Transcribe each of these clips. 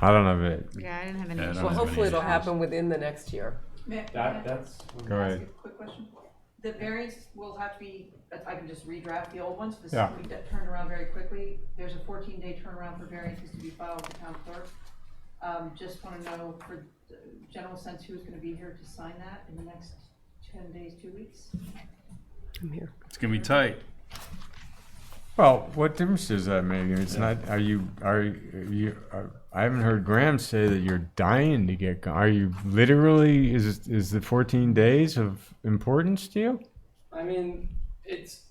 I don't have it. Yeah, I didn't have Yeah, I any. don't Well, have any hopefully it'll issues. happen within the next year. May, may I That, that's, Go ahead. ask a quick question? The variance will have to be, I can just redraft the old ones, this, Yeah. we get turned around very quickly. There's a fourteen day turnaround for variances to be filed with the town clerk. Um, just wanna know for uh, general sense, who's gonna be here to sign that in the next ten days, two weeks? I'm here. It's gonna be tight. Well, what difference does that make? It's not. Are you? Are you? Are, I haven't heard Graham say that you're dying to get. go- Are you literally? Is is the 14 days of importance to you? I mean, it's.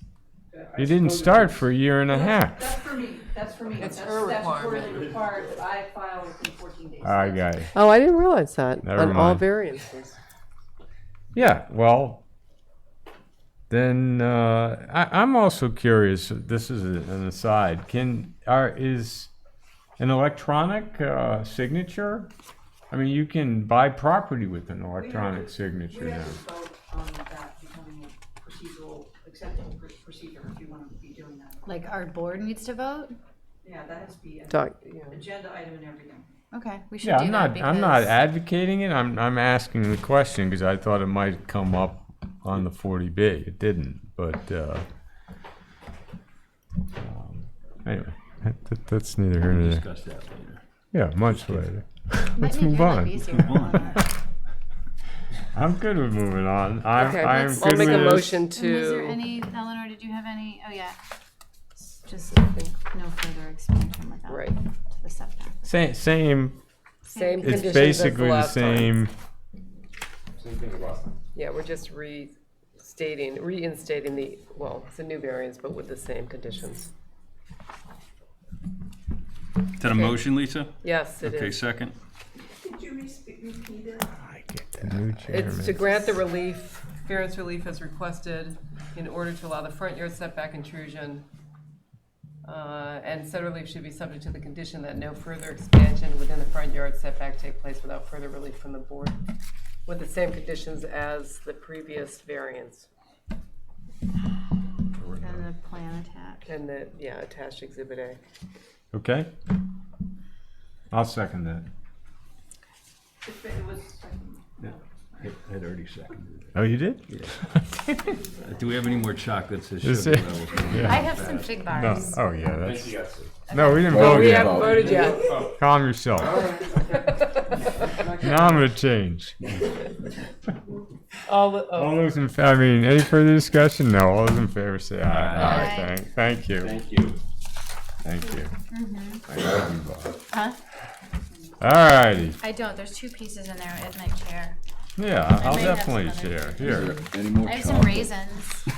I You didn't suppose it start is. for a year and a That's half. for me, that's for me. It's That's her statutorily requirement. required, that I file within fourteen days. I got it. Oh, I didn't realize that Never on all mind. variances. Yeah, well, then uh, I, I'm also curious. This is a- an aside. Can are is an electronic uh, signature? I mean, you can buy property with an electronic signature We now. have to vote on that becoming a procedural, acceptable pr- procedure if you wanna be doing that. Like our board needs to vote? Yeah, that has to be an Doc- yeah. agenda item and everything. Okay, we should Yeah, do I'm that not. I'm not because- advocating it. I'm I'm asking the question because I thought it might come up on the 40B. It didn't, but uh, um, anyway, that, that's neither here nor there. Discuss that later. Yeah, much later. Might Let's make move your life on. easier. I'm good with moving on. I'm, Okay, I'm let's- good I'll make a with this. motion And was there to. any, Eleanor, did you have any, oh yeah. Just no further expansion without. Right. To the setback. Same, same. Same It's conditions as basically the last time. same. Same thing as last time. Yeah, we're just restating, reinstating the, well, it's a new variance, but with the same conditions. Is that a motion, Lisa? Yes, it Okay, is. second. Did you repeat it? New chairman. It's to grant the relief, variance relief as requested in order to allow the front yard setback intrusion. Uh, And said relief should be subject to the condition that no further expansion within the front yard setback take place without further relief from the board, with the same conditions as the previous variance And the plan attached. and the, yeah, attached exhibit A. Okay. I'll second that. It was, I had already seconded Oh, you did? it. Uh, Do we have any more chocolates? This Is should be it- level with me. I have some fig No. bars. Oh, yeah. Thank That's you guys. no. We didn't Well, vote we yet. have- Voted yet. Calm yourself. now I'm gonna change. All, All the- oh, those in. fa- I mean, any further discussion? No. All those in favor say aye. Aye. aye. Thank, thank you. Mm-hmm. Thank you. Thank you. Huh? All righty. I don't, there's two pieces in there at my chair. Yeah, I'll may have some definitely other- share. Here. Any more I have some chocolate? raisins. From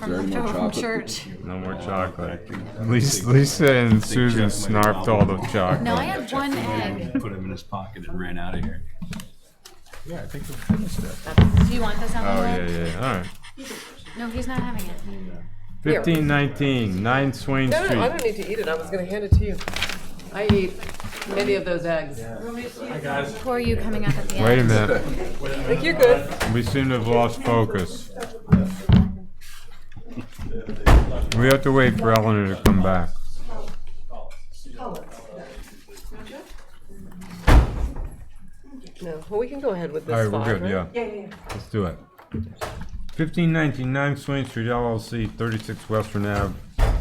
there any more leftover from chocolate? church. No more chocolate. Lisa, Lisa and Susan snarfed all the chocolate. No, I had one egg. Put him in his pocket and ran out of here. Yeah, I think we finished that. Do you want this on Oh, the yeah, lid? yeah, all right. No, he's not having it. Here. Fifteen nineteen, nine Swain no, no, I Street. don't need to eat it, I was gonna hand it to you. I ate many of those eggs. Poor you coming up at the end. Wait a minute, I think you're good. we seem to have lost focus. We have to wait for Eleanor to come back. No, well, we can go ahead with this All right, five, we're good, right? yeah. yeah, yeah, yeah. Let's do it. Fifteen nineteen nine Swain Street LLC, thirty-six Western Ave,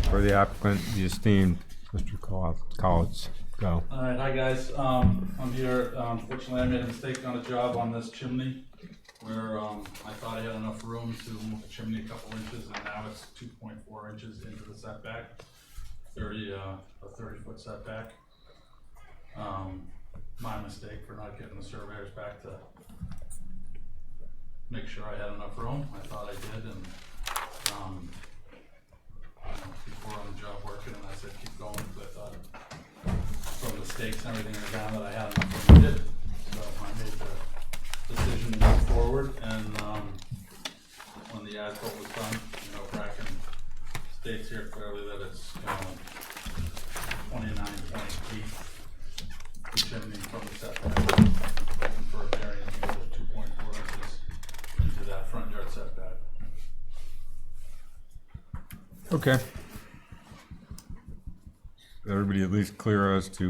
for the applicant, the esteemed Mr. Coll- Collins. Go. All right, hi guys. Um, I'm here. Um, Fortunately, I made a mistake on a job on this chimney where um, I thought I had enough room to move the chimney a couple inches, and now it's 2.4 inches into the setback, 30 uh, a 30 foot setback. Um, my mistake for not getting the surveyors back to make sure I had enough room. I thought I did, and um, you know, before on the job working, and I said keep going because I thought from the stakes and everything I found that I had enough room to do. So I made the decision to move forward and, um, when the asphalt was done, you know, cracking stakes here clearly that it's, um, twenty-nine point eight chimney from the setback. And for a variance, you go two point four inches into that front yard setback. Okay. Everybody at least clear as to